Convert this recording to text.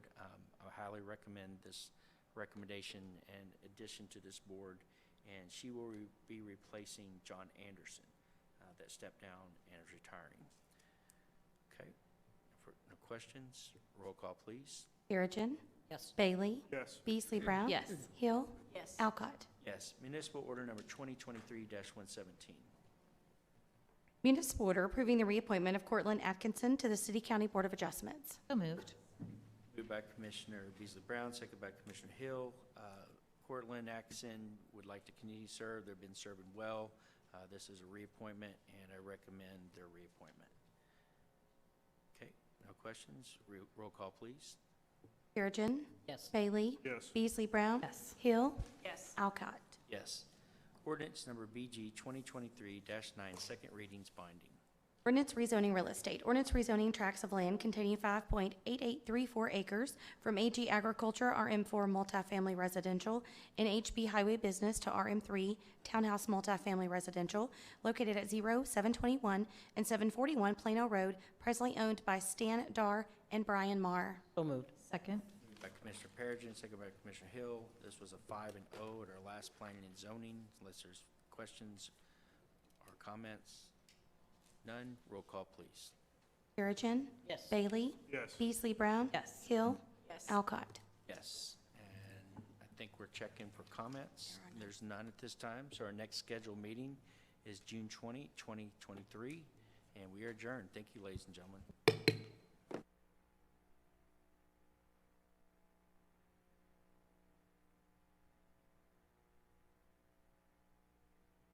Um, highly recommend this recommendation and addition to this board, and she will re- be replacing John Anderson uh, that stepped down and is retiring. Okay, for- no questions? Roll call, please. Perigin. Yes. Bailey. Yes. Beasley Brown. Yes. Hill. Yes. Alcott. Yes, municipal order number 2023-117. Municipal order approving the reappointment of Cortland Atkinson to the City County Board of Adjustments. So moved. Moved by Commissioner Beasley Brown, second by Commissioner Hill. Uh, Cortland Atkinson would like to continue to serve. They've been serving well. Uh, This is a reappointment, and I recommend their reappointment. Okay, no questions? Re- Roll call, please. Perigin. Yes. Bailey. Yes. Beasley Brown. Yes. Hill. Yes. Alcott. Yes. Ordinance number BG 2023-9, second readings binding. Ordinance rezoning real estate. Ordinance rezoning tracts of land containing 5.8834 acres from AG Agriculture, RM4 multifamily residential, and HB Highway Business to RM3 Townhouse multifamily residential, located at 0, 721, and 741 Plano Road, presently owned by Stan Dar and Brian Marr. So moved. Second. Moved By Commissioner Perigin, second by Commissioner Hill. This was a five and O at our last planning and zoning, unless there's questions or comments. None, roll call, please. Perigin. Yes. Bailey. Yes. Beasley Brown. Yes. Hill. Yes. Alcott. Yes, and I think we're checking for comments. There's none at this time, so our next scheduled meeting is June 20, 2023, and we are adjourned. Thank you, ladies and gentlemen.